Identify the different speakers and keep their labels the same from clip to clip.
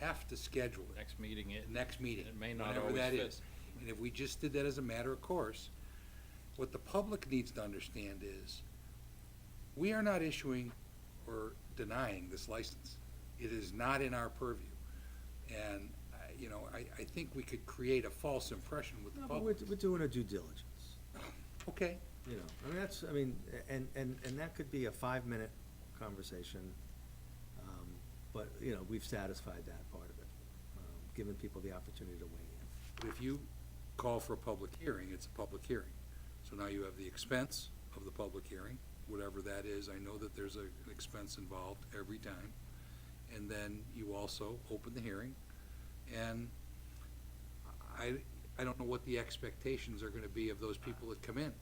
Speaker 1: have to schedule it,
Speaker 2: Next meeting, it,
Speaker 1: the next meeting.
Speaker 2: It may not
Speaker 1: whenever
Speaker 2: always
Speaker 1: that
Speaker 2: fit.
Speaker 1: is. And if we just did that as a matter of course, what the public needs to understand is, we are not issuing or denying this license. It is not in our purview. And, I- you know, I, I think we could create a false impression with the
Speaker 3: No, but we're,
Speaker 1: public.
Speaker 3: we're doing our due diligence,
Speaker 1: Okay,
Speaker 3: you know, I mean, that's, I mean, and, and, and that could be a five-minute conversation. um, But, you know, we've satisfied that part of it, um, given people the opportunity to weigh in.
Speaker 1: But if you call for a public hearing, it's a public hearing. So now you have the expense of the public hearing, whatever that is. I know that there's a- an expense involved every time. And then you also open the hearing. And I, I don't know what the expectations are gonna be of those people that come in.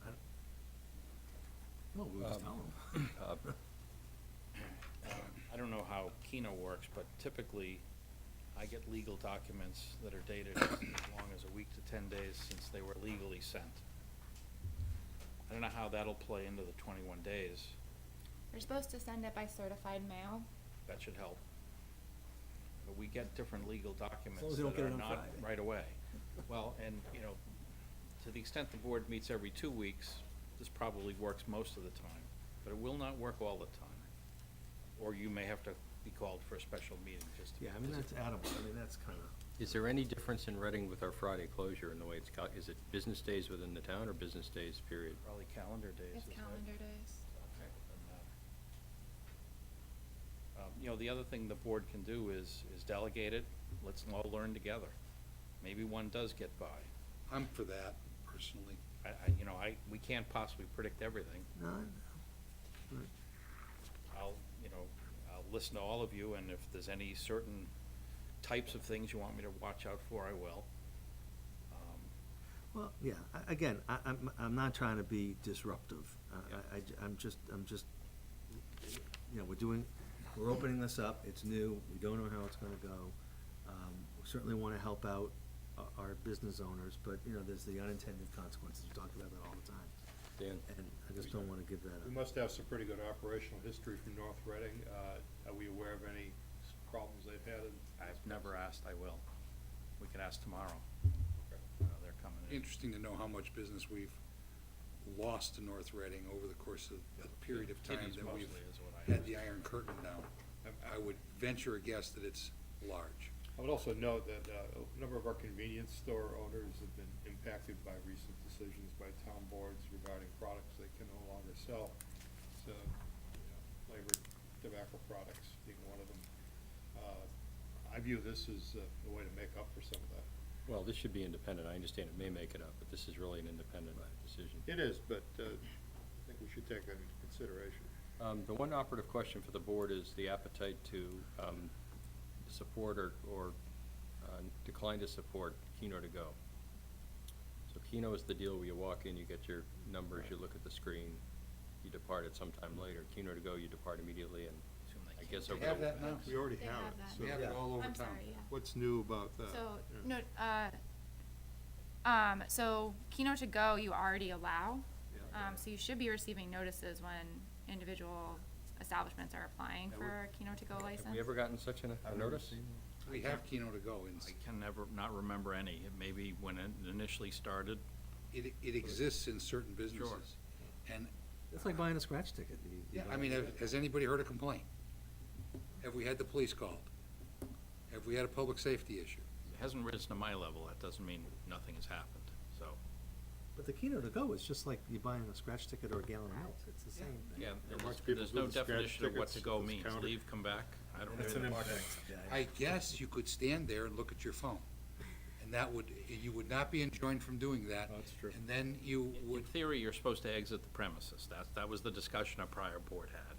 Speaker 3: No, we'll just tell them.
Speaker 2: I don't know how Keno works, but typically, I get legal documents that are dated as long as a week to ten days since they were legally sent. I don't know how that'll play into the twenty-one days,
Speaker 4: We're supposed to send it by certified mail.
Speaker 2: that should help. But we get different legal
Speaker 3: long
Speaker 2: documents
Speaker 3: as they don't
Speaker 2: that
Speaker 3: get
Speaker 2: are
Speaker 3: it on
Speaker 2: not
Speaker 3: Friday.
Speaker 2: right away. Well, and, you know, to the extent the board meets every two weeks, this probably works most of the time, but it will not work all the time. Or you may have to be called for a special meeting just to.
Speaker 3: Yeah, I mean, that's Adam, I mean, that's kind of.
Speaker 5: Is there any difference in Reading with our Friday closure in the way it's cal, is it business days within the town or business days period?
Speaker 2: Probably calendar days.
Speaker 4: It's
Speaker 2: isn't it?
Speaker 4: calendar days.
Speaker 2: Okay, then, uh, um, You know, the other thing the board can do is, is delegate it, let's all learn together. Maybe one does get by.
Speaker 1: I'm for that personally.
Speaker 2: I, I, you know, I, we can't possibly predict everything.
Speaker 3: No, I know. Right.
Speaker 2: I'll, you know, I'll listen to all of you, and if there's any certain types of things you want me to watch out for, I will. Um,
Speaker 3: Well, yeah, I- again, I, I'm, I'm not trying to be disruptive. I- I, I, j- I'm just, I'm just, you know, we're doing, we're opening this up, it's new, we don't know how it's gonna go. Um, we Certainly wanna help out o- our business owners, but, you know, there's the unintended consequences, we talk about that all the time.
Speaker 5: Dan?
Speaker 3: And I just don't wanna give that
Speaker 6: We
Speaker 3: up.
Speaker 6: must have some pretty good operational history from North Reading. Uh, Are we aware of any s- problems they've had? in-
Speaker 2: I've never asked, I will. We can ask tomorrow. Uh, They're coming in.
Speaker 1: Interesting to know how much business we've lost to North Reading over the course of the period of time
Speaker 2: Kitties
Speaker 1: that we've
Speaker 2: mostly is what I
Speaker 1: had
Speaker 2: asked.
Speaker 1: the Iron Curtain now. I would venture a guess that it's large.
Speaker 6: I would also note that uh, a number of our convenience store owners have been impacted by recent decisions by town boards regarding products they can no longer sell. So, you know, flavored tobacco products being one of them. Uh, I view this as uh, a way to make up for some of that.
Speaker 5: Well, this should be independent. I understand it may make it up, but this is really an independent decision.
Speaker 6: It is, but uh, I think we should take that into consideration.
Speaker 5: Um, the one operative question for the board is the appetite to, um, support or, or, uh, decline to support Keno to go. So Keno is the deal where you walk in, you get your numbers, you look at the screen, you depart at some time later. Keno to go, you depart immediately and
Speaker 2: Assume they
Speaker 5: I
Speaker 2: keep
Speaker 5: guess
Speaker 2: it.
Speaker 5: over
Speaker 1: They have
Speaker 5: the,
Speaker 1: that now.
Speaker 6: We already
Speaker 4: They
Speaker 6: have
Speaker 4: have
Speaker 6: it.
Speaker 4: that.
Speaker 6: so-
Speaker 1: We have it all over town.
Speaker 4: I'm sorry, yeah.
Speaker 6: What's new about that?
Speaker 4: So,
Speaker 6: Yeah.
Speaker 4: no, uh, um, so Keno to go, you already allow.
Speaker 6: Yeah.
Speaker 4: Um, so you should be receiving notices when individual establishments are applying
Speaker 1: That would-
Speaker 4: for a Keno to go license.
Speaker 5: have we ever gotten such an- a notice?
Speaker 1: We have Keno to go, and
Speaker 2: I can never, not remember any. It may be when it initially started.
Speaker 1: it, it exists in certain businesses. And,
Speaker 3: It's like buying a scratch ticket. You- you
Speaker 1: yeah, I
Speaker 3: buy-
Speaker 1: mean, have- has anybody heard a complaint? Have we had the police called? Have we had a public safety issue?
Speaker 2: It hasn't risen to my level. That doesn't mean nothing has happened, so.
Speaker 3: But the Keno to go is just like you buying a scratch ticket or a gallon of milk, it's the same thing.
Speaker 2: Yeah,
Speaker 6: There are
Speaker 2: there's,
Speaker 6: lots of people
Speaker 2: there's
Speaker 6: who do
Speaker 2: no
Speaker 6: the scratch
Speaker 2: definition of what to
Speaker 6: tickets,
Speaker 2: go
Speaker 6: those
Speaker 2: means.
Speaker 6: counter-
Speaker 2: Leave, come back. I don't
Speaker 3: That's
Speaker 2: know.
Speaker 3: an
Speaker 1: I guess you could stand there and look at your phone, and that would, you would not be enjoined from doing that.
Speaker 6: That's true.
Speaker 1: And then you
Speaker 2: In
Speaker 1: would,
Speaker 2: theory, you're supposed to exit the premises. That, that was the discussion a prior board had.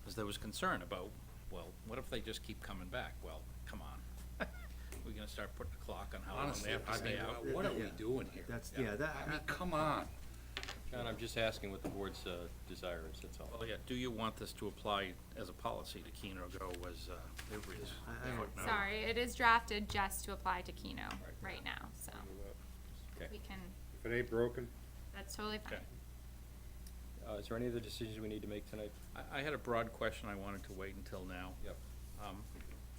Speaker 2: Because there was concern about, well, what if they just keep coming back? Well, come on. We're gonna start putting a clock on how long they
Speaker 1: honestly,
Speaker 2: have to
Speaker 1: I mean,
Speaker 2: stay out.
Speaker 1: what are we
Speaker 3: Yeah.
Speaker 1: doing here?
Speaker 3: That's,
Speaker 2: Yeah.
Speaker 3: yeah, that,
Speaker 1: I mean, come on.
Speaker 5: John, I'm just asking what the board's, uh, desire is, that's all.
Speaker 2: Well, yeah, do you want this to apply as a policy to Keno Go was, uh, it was.
Speaker 3: I- I don't-
Speaker 2: footnote.
Speaker 4: Sorry, it is drafted just to apply to Keno right now, so
Speaker 5: Okay.
Speaker 4: we can,
Speaker 6: If it ain't broken,
Speaker 4: that's totally fine.
Speaker 2: Okay.
Speaker 5: Uh, is there any other decisions we need to make tonight?
Speaker 2: I, I had a broad question I wanted to wait until now.
Speaker 5: Yep.
Speaker 2: Um,